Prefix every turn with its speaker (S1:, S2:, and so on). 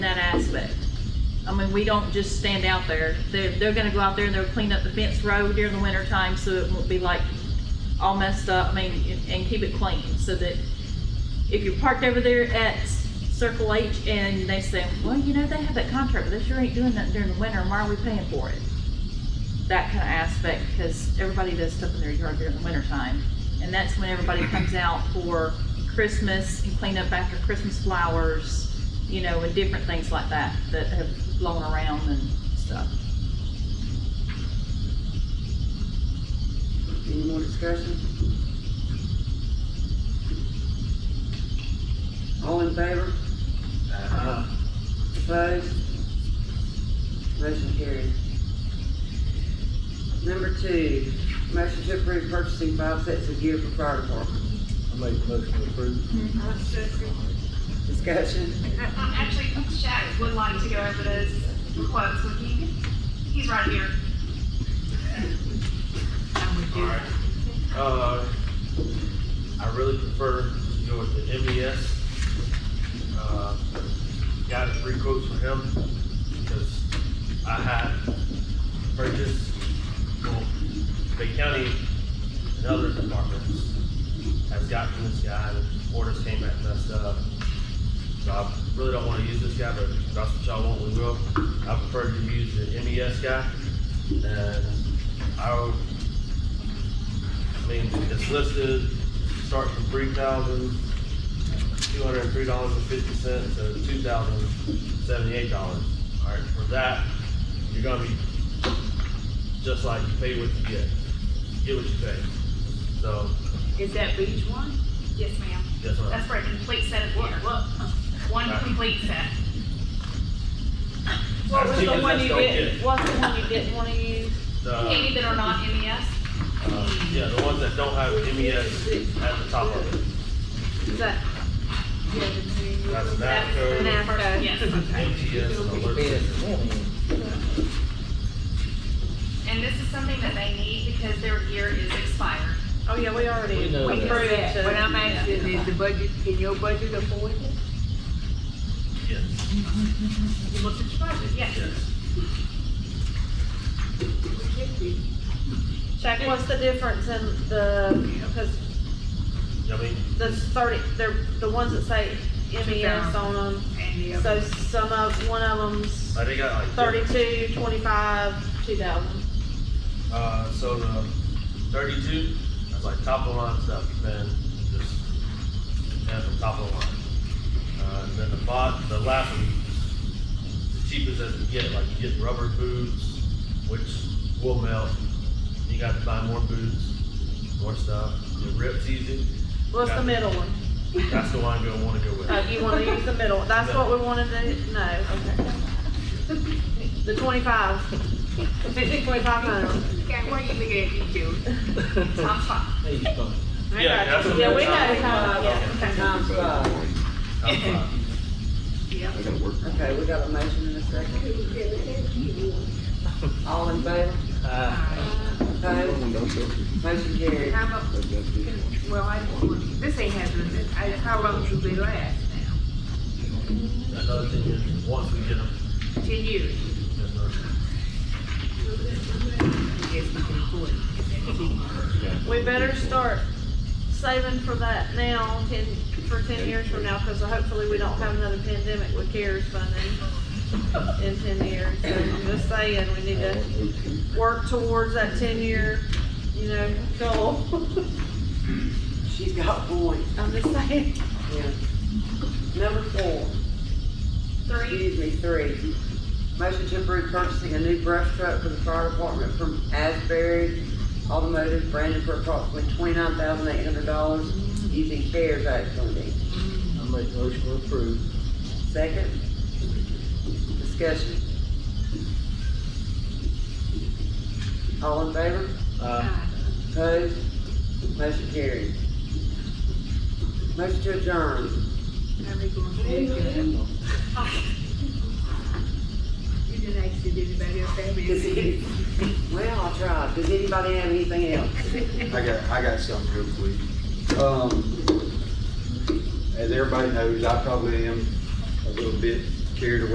S1: aspect. I mean, we don't just stand out there. They're, they're gonna go out there and they'll clean up the fence row during the winter time, so it won't be like all messed up, I mean, and- and keep it clean, so that if you're parked over there at Circle H and they say, well, you know, they have that contract, but they sure ain't doing nothing during the winter, and why are we paying for it? That kind of aspect, because everybody does stuff in their yard during the winter time. And that's when everybody comes out for Christmas and clean up after Christmas flowers, you know, and different things like that, that have blown around and stuff.
S2: Any more discussion? All in favor? Opposed? Motion carried. Number two, motion to approve purchasing five sets of gear for fire department.
S3: I make a motion to approve.
S2: Discussion?
S4: Um, Actually, Shaq would like to go over those quotes with you. He's right here. I'm with you.
S5: Alright. Uh, I really prefer to go with the MES. Uh, Got three quotes for him because I had purchased, well, the county and other departments has gotten this guy, the orders came back messed up. So I really don't want to use this guy, but if that's what y'all want, we will. I prefer to use the MES guy. And I would I mean, it's listed, starts from three thousand, two hundred and three dollars and fifty cents to two thousand seventy-eight dollars. All right, for that, you're gonna be just like you pay what you get, get what you pay. So,
S6: Is that for each one?
S4: Yes, ma'am.
S5: that's what
S4: That's
S5: I,
S4: for a complete set of
S6: What,
S4: gear.
S6: what?
S4: One complete set.
S6: What was the
S5: Cheapest
S6: one you
S5: that's gonna
S6: didn't,
S5: get.
S6: what's the one you didn't wanna use?
S5: the,
S4: Any that are not E MES,
S5: uh, yeah, the ones that don't have MES at the top of it.
S6: Is that?
S5: That's
S4: that's the
S5: NAFCO,
S4: NAFTA, yes.
S5: MTS, and alert system.
S4: And this is something that they need because their gear is expired.
S6: Oh, yeah, we already
S3: We know
S6: approved
S3: that.
S6: it.
S7: What I'm asking is the budget, can your budget afford it?
S5: Yes,
S4: You looked at your budget, yes.
S5: yes.
S6: Shaq, what's the difference in the, because
S5: I mean,
S6: the thirty, they're, the ones that say MES on them,
S7: And the
S6: so
S7: other,
S6: some of, one of them's
S5: I think I like.
S6: thirty-two, twenty-five, two thousand.
S5: Uh, so the thirty-two, that's like top of the line stuff, man, just at the top of the line. Uh, and then the bot, the last one, the cheapest as we get, like you get rubber boots, which will melt. You got to buy more boots, more stuff. It rips easy.
S6: What's the middle one?
S5: That's the one you want to go with.
S6: Uh, you wanna use the middle, that's what we wanted to know. The twenty-five. Twenty-five hundred.
S7: okay, what are you looking at, you two?
S4: Top five.
S6: I
S5: Yeah,
S6: got
S5: that's
S6: you.
S5: what
S6: Yeah,
S5: we're
S6: we know
S5: talking
S6: how,
S5: about.
S6: yeah, okay.
S2: Um,
S7: Times five.
S5: Top five.
S4: Yeah.
S8: I gotta work.
S2: Okay, we got a motion in a second. All in favor? Opposed? Motion carried.
S7: How about, well, I, this ain't happening, I, how long should they last now?
S5: Another thing is, once we get them,
S7: Ten years?
S5: there's no-
S7: Yes, we can afford it.
S6: We better start saving for that now, ten, for ten years from now, cause hopefully we don't have another pandemic with CARES funding in ten years. So I'm just saying, we need to work towards that ten-year, you know, goal.
S2: She's got points.
S6: I'm just saying.
S2: Yeah. Number four,
S4: Three,
S2: excuse me, three. Motion to approve purchasing a new brush truck for the fire department from Asbury Automotive branded for approximately twenty-nine thousand eight hundred dollars using CARES Act funding.
S3: I make a motion to approve.
S2: Second? Discussion. All in favor?
S3: Uh,
S2: Opposed? Motion carried. Motion to adjourn.
S7: How they gonna pay that? You didn't ask if anybody else had
S2: Does
S7: any.
S2: any- Well, I tried. Does anybody have anything else?
S8: I got, I got something real quick. Um, as everybody knows, I probably am a little bit carried away